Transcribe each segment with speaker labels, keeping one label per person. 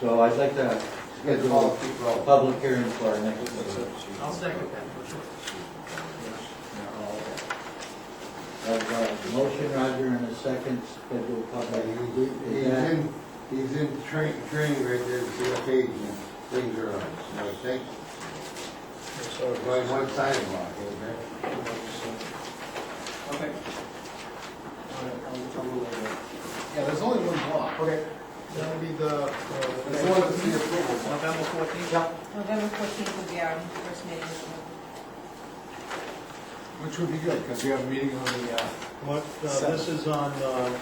Speaker 1: So I'd like to
Speaker 2: Get the ball,
Speaker 1: schedule
Speaker 2: keep
Speaker 1: a
Speaker 2: rolling.
Speaker 1: public hearing for our next meeting.
Speaker 3: I'll second that, for sure.
Speaker 1: Of, uh, motion, Roger, and a second schedule
Speaker 2: But
Speaker 1: public.
Speaker 2: he- he- He's in, he's in train, training right there to see what page and things are on, you know, thank you. So it's only one sidewalk, okay?
Speaker 4: Okay.
Speaker 5: Yeah, there's only one block.
Speaker 4: Okay.
Speaker 5: That'll be the,
Speaker 4: That's the one that's the
Speaker 5: uh,
Speaker 4: approval block.
Speaker 5: November fourteenth,
Speaker 6: November fourteenth will be our first meeting.
Speaker 4: Which would be good, because we have a meeting on the, uh,
Speaker 7: What, uh, this is on, uh,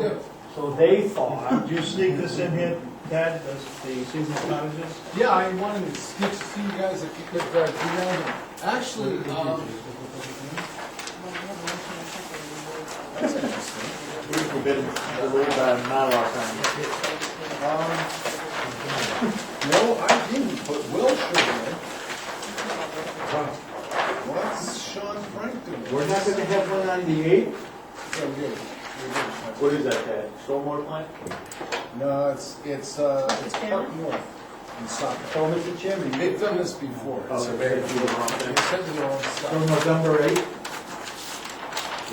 Speaker 5: good.
Speaker 7: so, so they thought, did you sneak this in here, Ted, this- the seasonal cottages?
Speaker 5: Yeah, I wanted to speak to you guys if you could, uh, do that. Actually,
Speaker 6: Well,
Speaker 5: um,
Speaker 6: we have a motion and a second, we will-
Speaker 7: Uh,
Speaker 5: no, I didn't, but Will should have. What's Sean Frank doing?
Speaker 1: We're not gonna have one on the eighth?
Speaker 5: Yeah, we did. We did.
Speaker 1: What is that, that stormwater plant?
Speaker 5: No, it's, it's, uh, it's
Speaker 6: Cameron?
Speaker 5: Park North in Saco.
Speaker 1: Oh, Mr. Chairman.
Speaker 5: They've done this before. It's a very good They said their own
Speaker 1: So
Speaker 5: stuff.
Speaker 1: November eighth?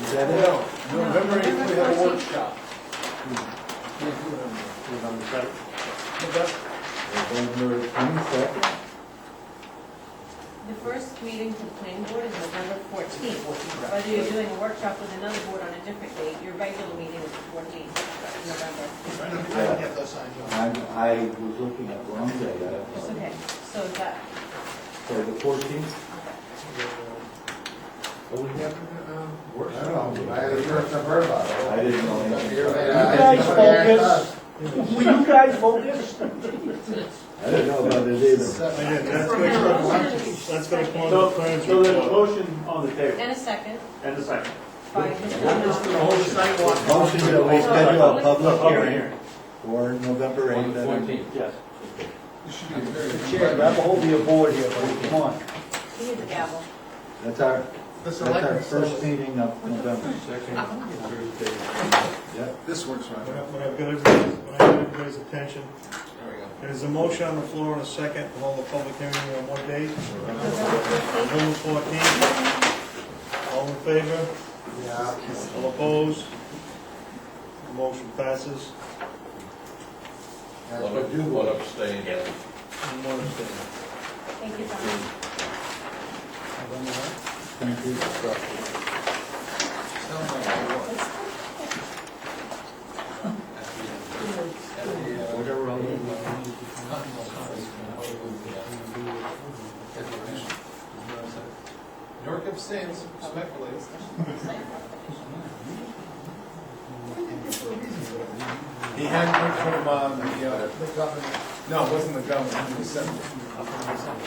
Speaker 1: Is that it?
Speaker 5: No, November eighth, we have a
Speaker 6: November
Speaker 5: workshop. Can't do it on there.
Speaker 1: November seventh?
Speaker 5: November-
Speaker 1: November twenty-second?
Speaker 6: The first meeting for the planning board is November fourteenth. Whether you're doing a workshop with another board on a different date, your regular meeting is the fourteenth, November.
Speaker 5: I don't have those signed on.
Speaker 1: I'm, I was looking at the wrong day. I-
Speaker 6: It's okay, so is that,
Speaker 1: So the fourteenth?
Speaker 5: Well, we have, um,
Speaker 2: I don't know, I had a first I've heard about it.
Speaker 1: I didn't know anything.
Speaker 2: You
Speaker 7: guys focus. Will you guys focus?
Speaker 1: I didn't know about it either.
Speaker 5: seven.
Speaker 7: Again, that's
Speaker 6: For
Speaker 7: gonna
Speaker 6: now,
Speaker 7: come,
Speaker 6: motion.
Speaker 7: that's gonna come on the
Speaker 8: So,
Speaker 7: plans
Speaker 8: so there's a
Speaker 7: report.
Speaker 8: motion on the table,
Speaker 6: and a second
Speaker 8: and a second.
Speaker 6: by Mr. Knopf.
Speaker 3: Hold the sidewalk.
Speaker 1: Motion that we schedule a public
Speaker 8: Public
Speaker 1: hearing for November eighth.
Speaker 8: Yes.
Speaker 5: You should be very.
Speaker 1: Chair, grab a hold of your board here, buddy. come on.
Speaker 6: You need the gavel.
Speaker 1: That's our,
Speaker 5: This
Speaker 1: that's our
Speaker 5: electric
Speaker 1: first
Speaker 5: service,
Speaker 1: meeting of November. Yep.
Speaker 5: this works right.
Speaker 7: When I- when I've got everybody's, when I've got everybody's attention,
Speaker 5: There we go.
Speaker 7: there's a motion on the floor and a second, to hold the public hearing on what date?
Speaker 6: November fourteenth.
Speaker 7: November fourteenth, all in favor?
Speaker 2: Yeah.
Speaker 7: All opposed? Motion passes.
Speaker 2: That's what you want.
Speaker 7: And one abstention.
Speaker 6: Thank you, Tom.
Speaker 1: Thank you.
Speaker 5: Sound like it works. At the, uh,
Speaker 1: Whatever I'll do.
Speaker 5: Continental Conference, uh, at the mission. York abstains, speculates. He had one from, um, the, uh, the governor, no, it wasn't the governor, he was senator.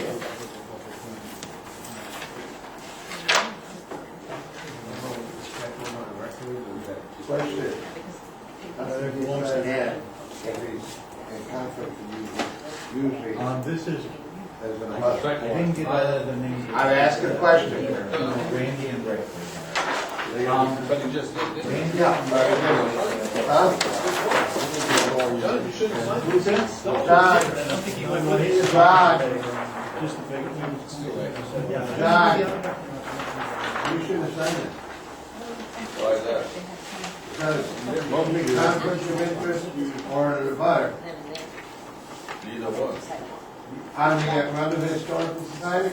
Speaker 2: Question,
Speaker 7: Uh, there belongs to
Speaker 2: Yeah. if he's in conflict with you, usually
Speaker 1: Um, this is,
Speaker 2: there's a
Speaker 1: I
Speaker 2: must.
Speaker 1: didn't get either the names.
Speaker 2: I'm asking a question.
Speaker 1: Randy and Rick.
Speaker 2: They-
Speaker 5: But he just did it.
Speaker 1: Randy?
Speaker 2: Yeah, but Huh?
Speaker 5: John, you shouldn't sign it.
Speaker 1: Who's that?
Speaker 2: John,
Speaker 7: I don't think he went with it.
Speaker 2: Rod.
Speaker 7: Just a big,
Speaker 5: It's too late.
Speaker 7: yeah.
Speaker 2: John, you should have signed it.
Speaker 6: Why is that?
Speaker 2: Because conflict of interest or an abutter.
Speaker 6: Neither one.
Speaker 2: I'm the run of the historical society.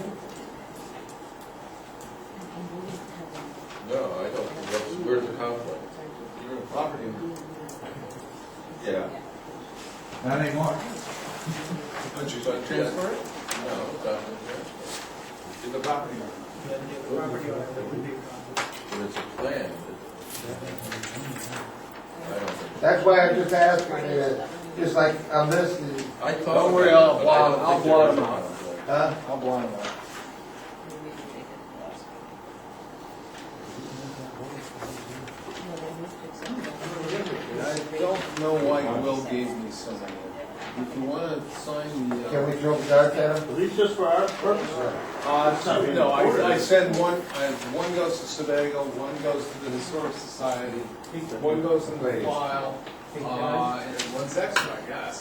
Speaker 9: No, I don't, What's- where's the conflict?
Speaker 5: You're a property owner.
Speaker 9: Yeah.
Speaker 1: Not anymore.
Speaker 5: But you should transfer it?
Speaker 9: No, it's not in there.
Speaker 5: You're the property owner.
Speaker 9: But it's a plan. I don't think,
Speaker 2: That's why I just asked, I mean, uh, just like on this, the-
Speaker 9: I thought.
Speaker 5: Don't worry, I'll
Speaker 9: but I
Speaker 5: block-
Speaker 9: don't
Speaker 5: I'll
Speaker 9: think there is
Speaker 5: block
Speaker 9: a
Speaker 5: them out.
Speaker 9: conflict.
Speaker 2: huh?
Speaker 5: I'll blind that. I don't know why Will gave me some of it. If you wanna sign the,
Speaker 2: Can
Speaker 5: uh,
Speaker 2: we joke darts at him?
Speaker 8: At least just for our purposes.
Speaker 5: uh, so- no, I, I send one, I, one goes to Sebago, one goes to the Historic Society, one goes in the
Speaker 2: Please.
Speaker 5: file, uh, and one's extra, I guess.